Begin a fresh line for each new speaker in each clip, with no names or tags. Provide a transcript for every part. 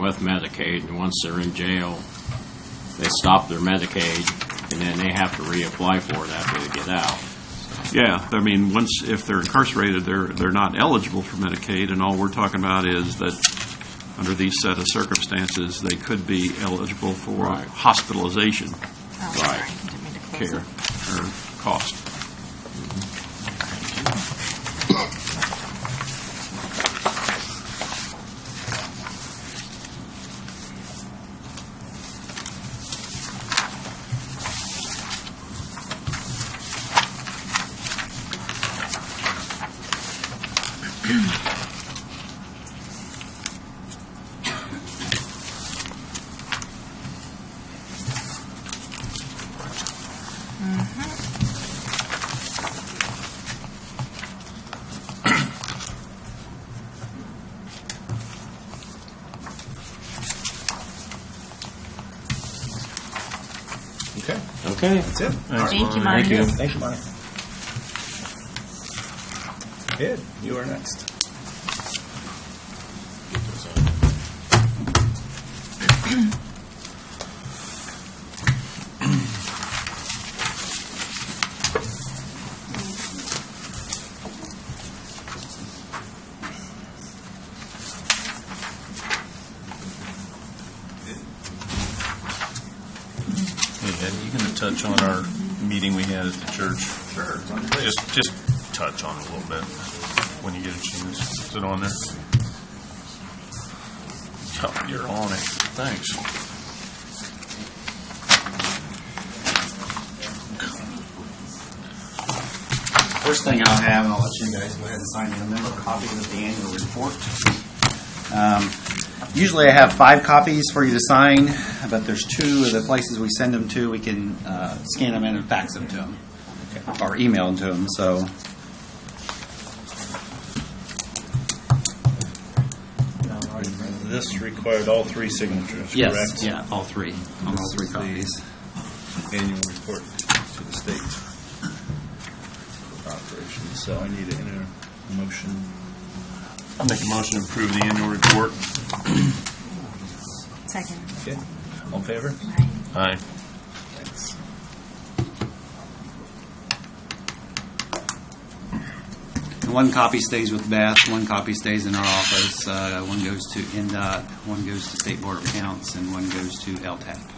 with Medicaid, and once they're in jail, they stop their Medicaid, and then they have to reapply for it after they get out.
Yeah, I mean, once, if they're incarcerated, they're, they're not eligible for Medicaid, and all we're talking about is that under these set of circumstances, they could be eligible for
Right.
hospitalization
Oh, sorry. I didn't mean to close
care
it.
or cost.
Okay,
Okay.
that's it.
Thank you,
Thank you.
Marcus.
Thank you, Bonnie. Ed, you are next.
Hey, Ed, you going to touch on our meeting we had at the church? Sure. Just, just touch on it a little bit when you get a chance. Is it on there? Oh, You're on it. Thanks.
First thing I'll have, and I'll let you guys go ahead and sign in, member copies of the annual report. Um, Usually I have five copies for you to sign, but there's two of the places we send them to, we can uh, scan them in and fax them to them, or email them to them, so.
This required all three signatures, correct?
Yes, yeah, all three, on all three copies.
Annual report to the state operations, so I need to enter a motion.
I'll Make a motion to approve the annual report.
Second.
Okay, all in favor?
Aye.
Aye.
Thanks.
One copy stays with Beth, one copy stays in our office, uh, one goes to NDOT, one goes to State Board of Accounts, and one goes to LTAP.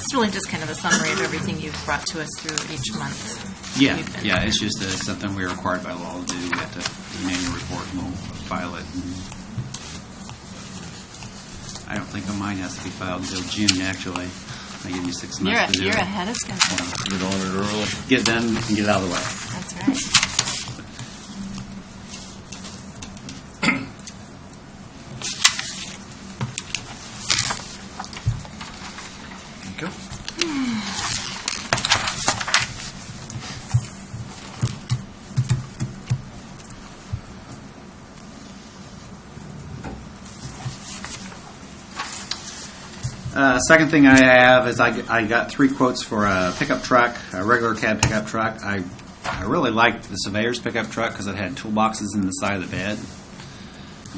It's really just kind of a summary of everything you've brought to us through each month.
Yeah,
You've been-
yeah, it's just uh, something we're required by law to do. We have to do an annual report and we'll file it. and- I don't think mine has to be filed until June, actually. They give you six
You're,
months
a-
to do
you're
it.
ahead of schedule.
Get on it early.
Get it done and get it out of the way.
That's right.
Uh, second thing I have is I, I got three quotes for a pickup truck, a regular cab pickup truck. I, I really liked the surveyor's pickup truck because it had toolboxes in the side of the bed,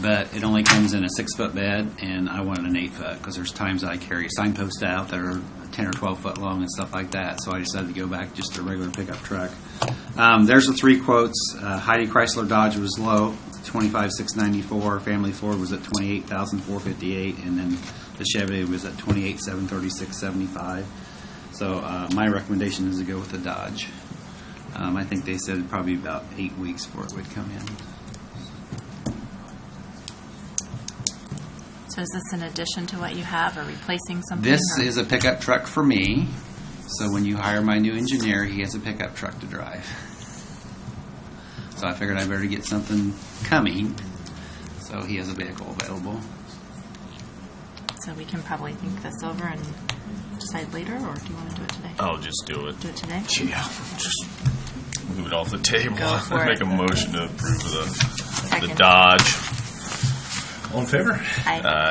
but it only comes in a six foot bed, and I wanted an eight foot because there's times I carry signposts out that are 10 or 12 foot long and stuff like that. So I decided to go back just to a regular pickup truck. Um, there's the three quotes. Uh, Heidi Chrysler Dodge was low, 25,694. Family Ford was at 28,458, and then the Chevy was at 28,736.75. So uh, my recommendation is to go with the Dodge. Um, I think they said probably about eight weeks before it would come in.
So is this in addition to what you have or replacing something?
This
or-
is a pickup truck for me. So when you hire my new engineer, he has a pickup truck to drive. So I figured I better get something coming. So he has a vehicle available.
So we can probably think this over and decide later, or do you want to do it today?
Oh.
I'll just do it.
Do it today?
Yeah, just move it off the table.
Go for
Make
it.
a motion to approve the, the
Second.
Dodge.
All in favor?
I-